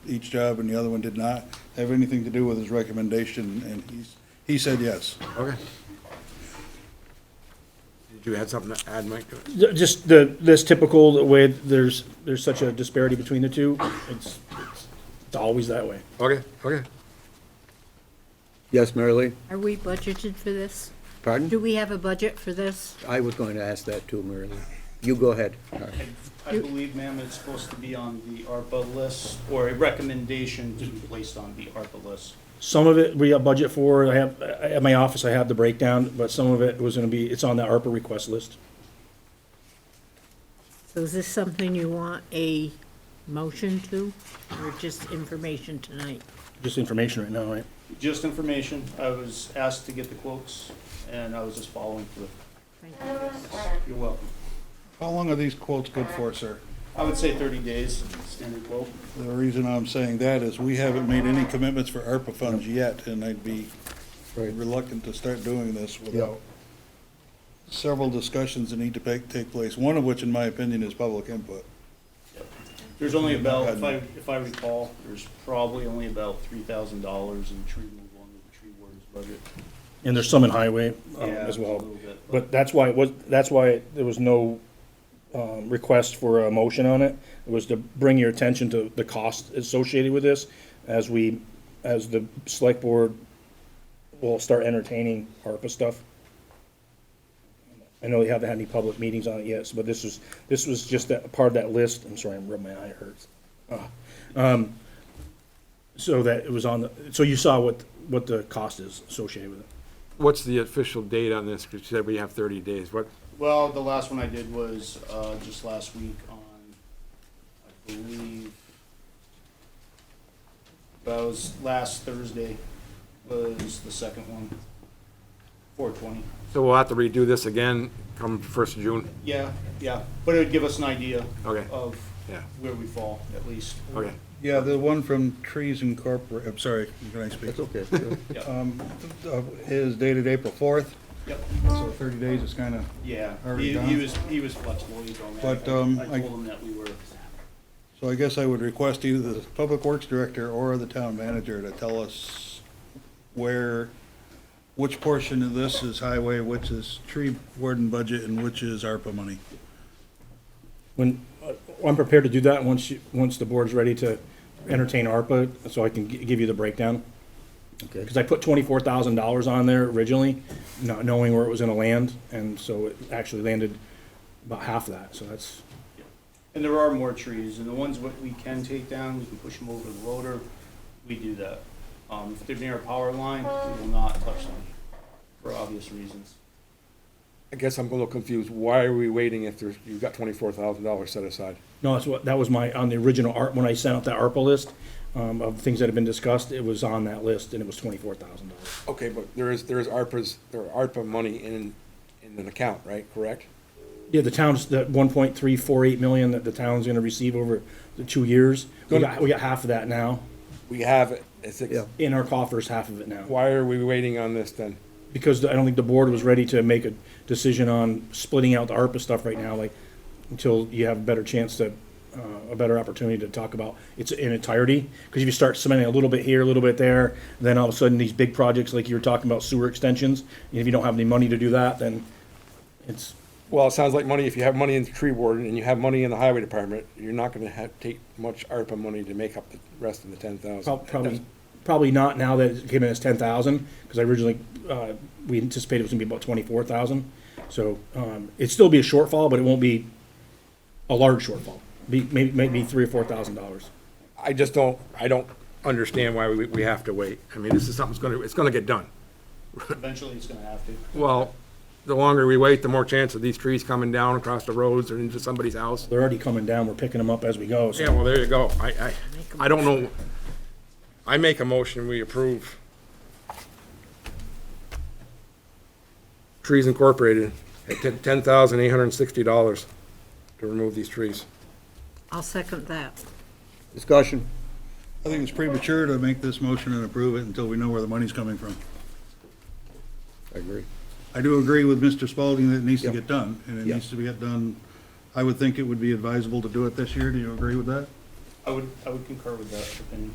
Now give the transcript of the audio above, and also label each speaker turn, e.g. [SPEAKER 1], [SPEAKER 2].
[SPEAKER 1] each job and the other one did not have anything to do with his recommendation, and he's, he said yes.
[SPEAKER 2] Okay. Did you add something to add, Mike, to it?
[SPEAKER 3] Ju- Just the, this typical way, there's, there's such a disparity between the two, it's, it's- it's always that way.
[SPEAKER 2] Okay, okay.
[SPEAKER 4] Yes, Mary Lee?
[SPEAKER 5] Are we budgeted for this? Do
[SPEAKER 4] Pardon?
[SPEAKER 5] we have a budget for this?
[SPEAKER 4] I was going to ask that too, Mary Lee. You go ahead.
[SPEAKER 6] I believe, ma'am, it's supposed to be on the ARPA list, or a recommendation to be placed on the ARPA list.
[SPEAKER 3] Some of it we have budget for, I have, I- at my office, I have the breakdown, but some of it was gonna be, it's on the ARPA request list.
[SPEAKER 5] So is this something you want a motion to, or just information tonight?
[SPEAKER 3] Just information right now, right?
[SPEAKER 6] Just information, I was asked to get the quotes, and I was just following through.
[SPEAKER 5] Thank
[SPEAKER 6] You're welcome.
[SPEAKER 1] How long are these quotes good for, sir?
[SPEAKER 6] I would say thirty days, standard quote.
[SPEAKER 1] The reason I'm saying that is we haven't made any commitments for ARPA funds yet, and I'd be reluctant to start doing this without several discussions that need to take, take place, one of which, in my opinion, is public input.
[SPEAKER 6] There's only about, if I, if I recall, there's probably only about three thousand dollars in tree removal under the tree warden's budget.
[SPEAKER 3] And there's some in highway um,
[SPEAKER 6] Yeah,
[SPEAKER 3] as
[SPEAKER 6] a
[SPEAKER 3] well.
[SPEAKER 6] little bit,
[SPEAKER 3] But that's why it was, that's why there was no um, request for a motion on it. It was to bring your attention to the cost associated with this as we, as the select board will start entertaining ARPA stuff. I know we haven't had any public meetings on it yet, so- but this was, this was just that, part of that list. I'm sorry, I'm rubbing my eye, it hurts. Ah. Um, So that it was on the, so you saw what, what the cost is associated with it.
[SPEAKER 2] What's the official date on this? 'Cause you said we have thirty days. What,
[SPEAKER 6] Well, the last one I did was, uh, just last week on, I believe, that was last Thursday was the second one, four twenty.
[SPEAKER 2] so we'll have to redo this again come first of June?
[SPEAKER 6] Yeah, yeah, but it would give us an idea
[SPEAKER 2] Okay.
[SPEAKER 6] of
[SPEAKER 2] Yeah,
[SPEAKER 6] where we fall, at least.
[SPEAKER 2] okay.
[SPEAKER 1] Yeah, the one from Trees Incorporated, I'm sorry, can I speak?
[SPEAKER 4] That's okay.
[SPEAKER 1] Um, uh, Is dated April fourth,
[SPEAKER 6] Yep,
[SPEAKER 1] so thirty days is kind of,
[SPEAKER 6] yeah,
[SPEAKER 1] Already
[SPEAKER 6] he, he
[SPEAKER 1] done?
[SPEAKER 6] was, he was flexible, he's on that.
[SPEAKER 1] But, um,
[SPEAKER 6] I
[SPEAKER 1] I-
[SPEAKER 6] told him that we were,
[SPEAKER 1] so I guess I would request either the Public Works Director or the Town Manager to tell us where, which portion of this is highway, which is tree warden budget, and which is ARPA money.
[SPEAKER 3] When, uh, I'm prepared to do that once you, once the board's ready to entertain ARPA, so I can gi- give you the breakdown.
[SPEAKER 4] Okay.
[SPEAKER 3] Because I put twenty-four thousand dollars on there originally, not knowing where it was gonna land, and so it actually landed about half that, so that's,
[SPEAKER 6] and there are more trees, and the ones what we can take down, we can push them over the loader, we do that. Um, if they're near a power line, we will not touch them, for obvious reasons.
[SPEAKER 7] I guess I'm a little confused. Why are we waiting if there's, you've got twenty-four thousand dollars set aside?
[SPEAKER 3] no, that's what, that was my, on the original art, when I sent out that ARPA list, um, of things that have been discussed, it was on that list, and it was twenty-four thousand dollars.
[SPEAKER 7] Okay, but there is, there is ARPA's, there are ARPA money in, in an account, right? Correct?
[SPEAKER 3] Yeah, the town's, that one point three four eight million that the town's gonna receive over the two years, we
[SPEAKER 7] Gonna-
[SPEAKER 3] got, we got half of that now,
[SPEAKER 7] We have it. It's,
[SPEAKER 4] Yeah.
[SPEAKER 3] in our coffers, half of it now.
[SPEAKER 7] why are we waiting on this then?
[SPEAKER 3] because I don't think the board was ready to make a decision on splitting out the ARPA stuff right now, like, until you have a better chance to, uh, a better opportunity to talk about its in entirety. Because if you start spending a little bit here, a little bit there, then all of a sudden, these big projects, like you were talking about sewer extensions, and if you don't have any money to do that, then it's,
[SPEAKER 7] Well, it sounds like money, if you have money in the tree warden and you have money in the highway department, you're not gonna have, take much ARPA money to make up the rest of the ten
[SPEAKER 3] Prob-
[SPEAKER 7] thousand.
[SPEAKER 3] Probably, probably not now that it came in as ten thousand, because I originally, uh, we anticipated it was gonna be about twenty-four thousand. So, um, it'd still be a shortfall, but it won't be a large shortfall, be, maybe, maybe three or four thousand dollars.
[SPEAKER 7] I just don't, I don't understand why we, we have to wait. I mean, this is something's gonna, it's gonna get done.
[SPEAKER 6] Eventually, it's gonna have to.
[SPEAKER 7] Well, the longer we wait, the more chance of these trees coming down across the roads or into somebody's house.
[SPEAKER 3] They're already coming down, we're picking them up as we go,
[SPEAKER 7] Yeah,
[SPEAKER 3] so
[SPEAKER 7] well, there you go. I, I, I don't know. I make a motion, we approve. Trees Incorporated at ten, ten thousand eight hundred and sixty dollars to remove these trees.
[SPEAKER 5] I'll second that.
[SPEAKER 4] Discussion.
[SPEAKER 1] I think it's premature to make this motion and approve it until we know where the money's coming from.
[SPEAKER 4] I agree.
[SPEAKER 1] I do agree with Mr. Spalding that it needs to
[SPEAKER 4] Yep.
[SPEAKER 1] get done, and it
[SPEAKER 4] Yep.
[SPEAKER 1] needs to be get done. I would think it would be advisable to do it this year. Do you agree with that?
[SPEAKER 6] I would, I would concur with that opinion.